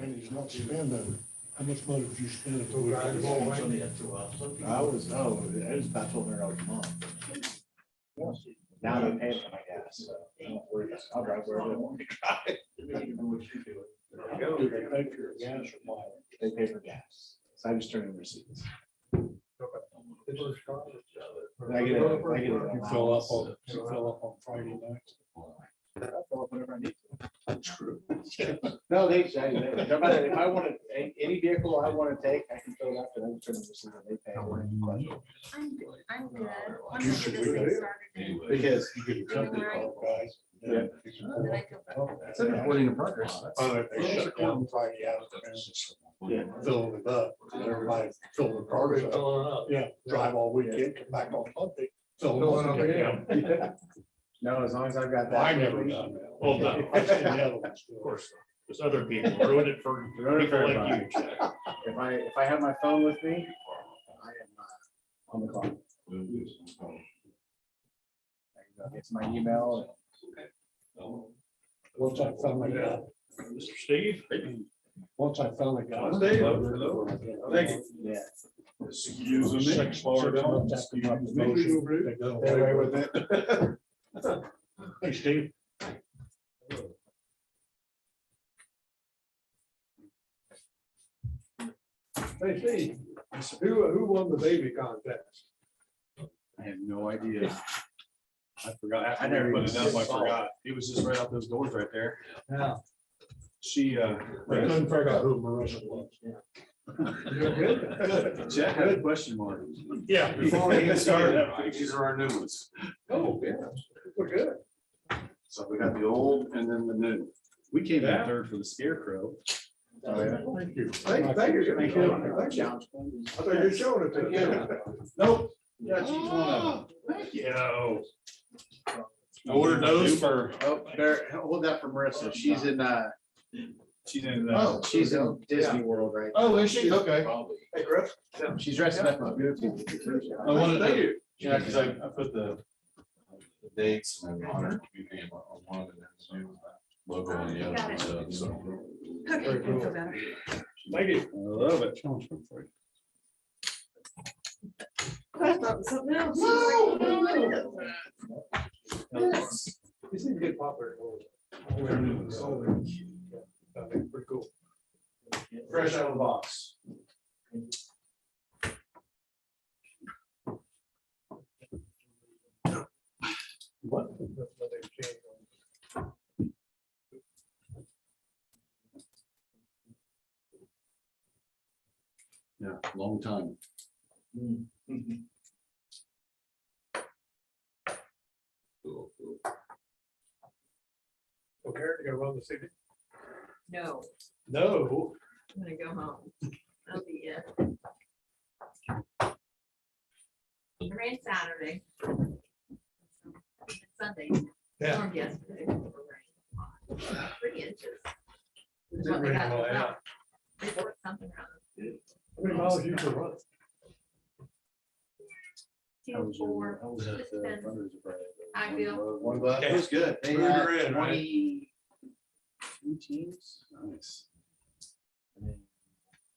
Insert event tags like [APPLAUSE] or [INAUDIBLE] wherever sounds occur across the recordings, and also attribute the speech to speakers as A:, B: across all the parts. A: And he's not spending, how much money would you spend? if we-
B: Right, well, wait.
C: I was, oh, it was about twelve hundred dollars a month. Now they pay for my gas, so I don't worry about it. I'll drive wherever I want to drive.
A: Do they pay for your gas or mileage?
C: They pay for gas, so I just turn in receipts. I get it, I get it.
A: You fill up on, you fill up on Friday nights.
C: I fill up whenever I need to. No, they, they- they- no matter, if I want to, any vehicle I want to take, I can fill it up and then turn in receipt and they pay.
D: I'm good. I'm good. I'm
A: You
D: gonna
A: should
D: get this
A: do
D: thing
A: that.
D: started
C: Because
A: You get a company call, guys.
C: Yeah.
D: and then I can-
E: It's a recording in progress.
A: Uh, Oh, they shut down Friday afternoon, fill it up,
D: Oh,
A: and everybody fill the cars up. Yeah, drive all weekend, come back on Monday,
B: Fill
A: fill
B: it
A: it
B: up
A: up again.
C: No, as long as I've got that.
A: I never done that.
F: Well,
C: [LAUGHS]
A: [LAUGHS]
F: no,
A: I've seen the other ones do it.
F: Of course, there's other people ruined it for
C: Ruined it for
F: people like you.
C: everybody.
F: Jack.
C: If I, if I have my phone with me, I am uh, on the clock. It's my email.
A: Once I finally got,
F: Mr. Steve?
A: once I finally got.
B: Monday, hello. Thank
A: Thank
C: Yeah.
A: Six bars. They go away with it. [LAUGHS] Hey, Steve.
B: Hey, Steve, who, who won the baby contest?
E: I have no idea. I forgot.
C: I never
E: Put
C: even
E: it up, I
C: saw it.
E: forgot. It was just right out those doors right there.
B: Yeah.
E: She, uh,
A: I couldn't figure out who Marissa was. [LAUGHS]
E: Jack had a question mark.
A: Yeah.
E: Before we even started, these are our new ones.
B: Oh, yeah, we're good.
E: So we got the old and then the new. We came in third for the scarecrow.
C: Oh,
A: Thank you.
B: Thank, thank you. Thank you. Thank you. I thought you were showing it to them.
E: Nope. Yeah, she's one of
F: Yo. Order those for,
C: Oh, there, hold that for Marissa. She's in, uh,
E: She's in
C: oh,
E: the.
C: she's in Disney World right
E: uh, Oh, is she? Okay.
B: Hey, Chris.
C: now. She's dressing up as beautiful.
E: I wanted to-
B: Thank you.
E: Yeah, because I, I put the the dates and I honored community on on one of them, so it was that logo on the
D: Got
E: other,
D: it.
E: so- so.
D: Okay,
B: cool.
D: feel better.
F: thank you.
E: Love it.
D: I thought it was something else.
B: These things get popular. Pretty cool.
C: Fresh out of the box.
E: Yeah, long time.
B: Okay, you gonna run the city?
D: No,
B: No.
D: I'm gonna go home. That'll be it. It rained Saturday. Sunday.
B: Yeah.
D: Storm yesterday. Three inches.
B: It did rain a lot, yeah.
D: They worked something around.
B: How many miles you can run?
E: How
D: Two,
E: was your-
D: four,
E: how was that, uh,
D: ten.
E: fundraiser Friday?
D: I feel-
E: One
C: One
E: buck.
C: buck. It was good. They
B: Who you
C: had
B: were in, right?
C: twenty. Two teams.
E: Nice.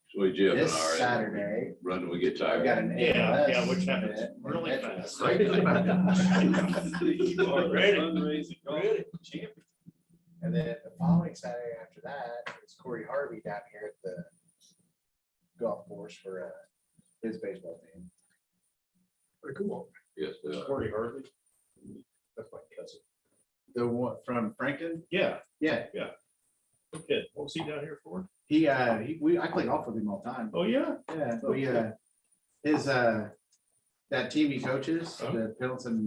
G: So Jim and
C: This
G: I are
C: Saturday.
G: running, we get
C: I've got
G: tired.
C: an.
F: Yeah, yeah,
C: ALS
F: which happens
C: event.
F: really
C: That's
F: fast.
C: right.
E: You are
F: Ready.
E: fundraising, go.
C: And then the following Saturday after that, it's Corey Harvey down here at the golf course for uh, his baseball team.
B: Pretty cool.
G: Yes, they are.
F: Corey Hartley.
C: That's my cousin. The one from Franklin?
F: Yeah,
C: Yeah,
F: okay. What's he down here for?
C: he, uh, he, we, I play golf with him all the time.
F: Oh, yeah.
C: Yeah, we, uh, his, uh, that team he coaches, the Pendleton